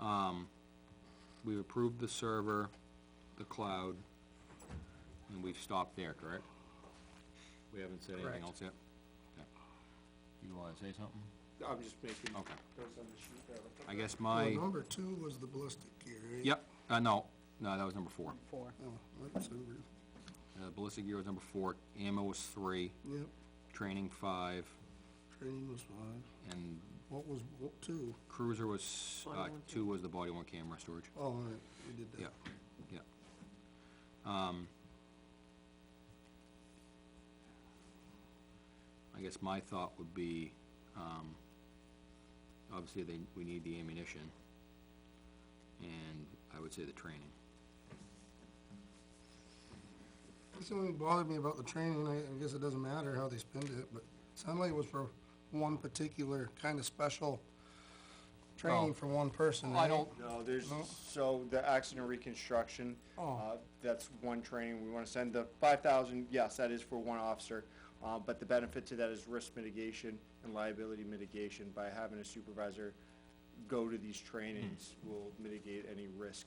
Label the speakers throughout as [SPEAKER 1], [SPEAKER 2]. [SPEAKER 1] Um, we've approved the server, the cloud, and we've stopped there, correct? We haven't said anything
[SPEAKER 2] Correct.
[SPEAKER 1] else yet? Okay. You wanna say something?
[SPEAKER 3] I'm just making
[SPEAKER 1] Okay.
[SPEAKER 3] notes on the sheet there.
[SPEAKER 1] I guess
[SPEAKER 4] Uh, Well,
[SPEAKER 1] my,
[SPEAKER 4] number two was the ballistic gear, right?
[SPEAKER 1] yep, uh, no, no, that was number four.
[SPEAKER 2] Four.
[SPEAKER 4] Oh, that's number,
[SPEAKER 1] Uh, ballistic gear was number four, ammo was three,
[SPEAKER 4] yep,
[SPEAKER 1] training five,
[SPEAKER 4] training was five.
[SPEAKER 1] and
[SPEAKER 4] What was, what, two?
[SPEAKER 1] cruiser was, uh, two was the body one camera storage.
[SPEAKER 4] Oh, all right, we did that.
[SPEAKER 1] Yeah, yeah. Um, I guess my thought would be, um, obviously they, we need the ammunition, and I would say the training.
[SPEAKER 4] That's the only thing that bothered me about the training, I, I guess it doesn't matter how they spend it, but it sounded like it was for one particular kind of special
[SPEAKER 1] Oh.
[SPEAKER 4] training for one person,
[SPEAKER 1] I
[SPEAKER 4] right?
[SPEAKER 1] don't,
[SPEAKER 3] No, there's,
[SPEAKER 4] No?
[SPEAKER 3] so the accident reconstruction,
[SPEAKER 4] Oh.
[SPEAKER 3] uh, that's one training, we wanna send the five thousand, yes, that is for one officer. Uh, but the benefit to that is risk mitigation and liability mitigation, by having a supervisor go to these trainings
[SPEAKER 4] Hmm.
[SPEAKER 3] will mitigate any risk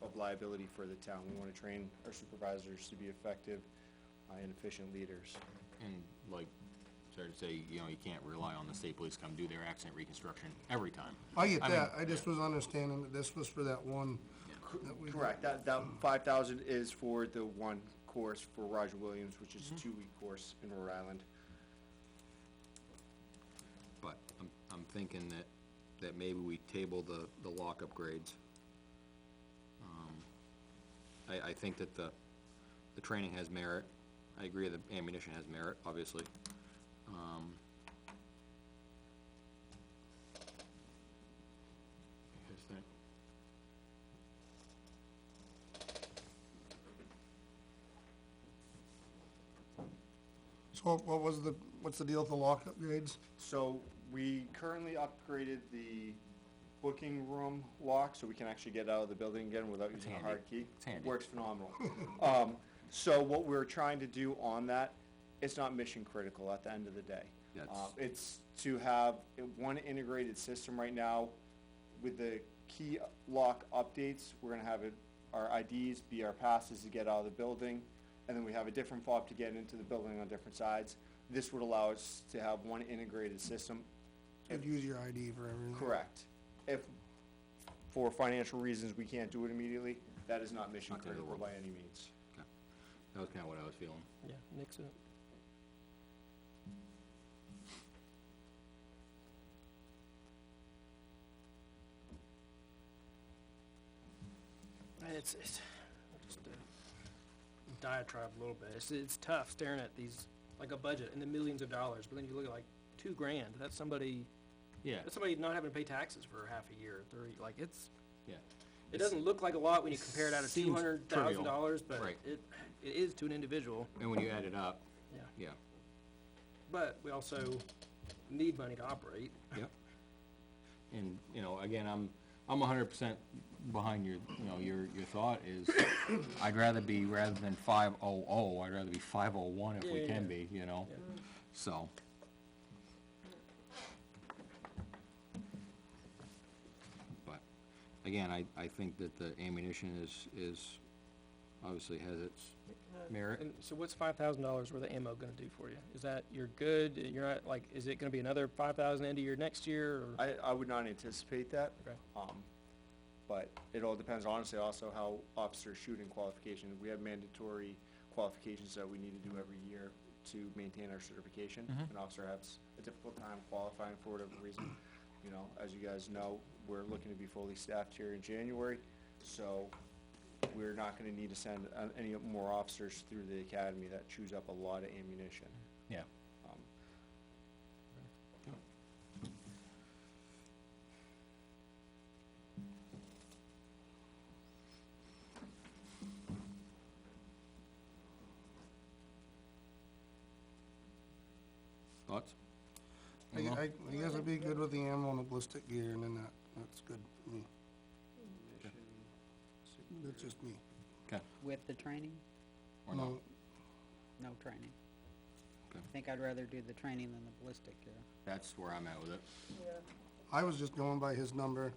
[SPEAKER 3] of liability for the town. We wanna train our supervisors to be effective uh, and efficient leaders.
[SPEAKER 1] and like, sorry to say, you know, you can't rely on the state police come do their accident reconstruction every time.
[SPEAKER 4] I get
[SPEAKER 1] I
[SPEAKER 4] that, I just was understanding that this was for that one. that we-
[SPEAKER 3] Correct, that, that five thousand is for the one course for Roger Williams, which
[SPEAKER 4] Mm-hmm.
[SPEAKER 3] is a two-week course in Rhode Island.
[SPEAKER 1] But I'm, I'm thinking that, that maybe we table the, the lock upgrades. Um, I, I think that the, the training has merit. I agree that ammunition has merit, obviously. Um, you guys think?
[SPEAKER 4] So what- what was the, what's the deal with the lock upgrades?
[SPEAKER 3] So we currently upgraded the booking room lock, so we can actually get out of the building again without using a
[SPEAKER 1] handy.
[SPEAKER 3] hard key.
[SPEAKER 1] It's handy.
[SPEAKER 3] Works phenomenal. Um, so what we're trying to do on that, it's not mission critical at the end of the day.
[SPEAKER 1] That's-
[SPEAKER 3] Uh, It's to have one integrated system right now with the key lock updates, we're gonna have it, our IDs be our passes to get out of the building, and then we have a different fob to get into the building on different sides. This would allow us to have one integrated system,
[SPEAKER 4] Could use your ID for everything.
[SPEAKER 3] correct. If, for financial reasons, we can't do it immediately, that is not mission
[SPEAKER 1] Not the end of the
[SPEAKER 3] critical by
[SPEAKER 1] world.
[SPEAKER 3] any means.
[SPEAKER 1] Okay. That was kinda what I was feeling.
[SPEAKER 2] Yeah, mix it up. It's, it's just a diatribe a little bit. It's, it's tough staring at these, like a budget and the millions of dollars, but then you look at like two grand, that's somebody,
[SPEAKER 1] Yeah,
[SPEAKER 2] that's somebody not having to pay taxes for half a year, three, like it's,
[SPEAKER 1] yeah.
[SPEAKER 2] it doesn't look like a lot when you compare it out of
[SPEAKER 1] Seems
[SPEAKER 2] two hundred thousand dollars,
[SPEAKER 1] trivial,
[SPEAKER 2] but
[SPEAKER 1] right.
[SPEAKER 2] it, it is to an individual,
[SPEAKER 1] And when you add it up,
[SPEAKER 2] yeah.
[SPEAKER 1] yeah,
[SPEAKER 2] But we also need money to operate.
[SPEAKER 1] Yep. And, you know, again, I'm, I'm hundred percent behind your, you know, your, your thought is, I'd rather be, rather than five oh oh, I'd rather be five oh one if we
[SPEAKER 2] Yeah,
[SPEAKER 1] can
[SPEAKER 2] yeah.
[SPEAKER 1] be, you know?
[SPEAKER 2] Yeah.
[SPEAKER 1] So. But, again, I, I think that the ammunition is, is, obviously has its merit.
[SPEAKER 2] And so what's five thousand dollars worth of ammo gonna do for you? Is that, you're good, you're not, like, is it gonna be another five thousand end of year next year, or?
[SPEAKER 3] I, I would not anticipate that.
[SPEAKER 2] Okay.
[SPEAKER 3] Um, but it all depends honestly also how officers shoot in qualification. We have mandatory qualifications that we need to do every year to maintain our certification. An officer has a difficult time qualifying for whatever reason. You know, as you guys know, we're looking to be fully staffed here in January, so we're not gonna need to send uh, any more officers through the academy that chews up a lot of ammunition.
[SPEAKER 1] Yeah.
[SPEAKER 3] Um,
[SPEAKER 1] Thoughts?
[SPEAKER 4] I,
[SPEAKER 1] Uh-huh.
[SPEAKER 4] I, I guess I'd be good with the ammo and the ballistic gear, and then that, that's good for me. That's just me.
[SPEAKER 1] Okay,
[SPEAKER 5] With the training?
[SPEAKER 1] or no?
[SPEAKER 4] No,
[SPEAKER 5] No training.
[SPEAKER 1] Okay.
[SPEAKER 5] I think I'd rather do the training than the ballistic gear.
[SPEAKER 1] That's where I'm at with it.
[SPEAKER 4] I was just going by his number,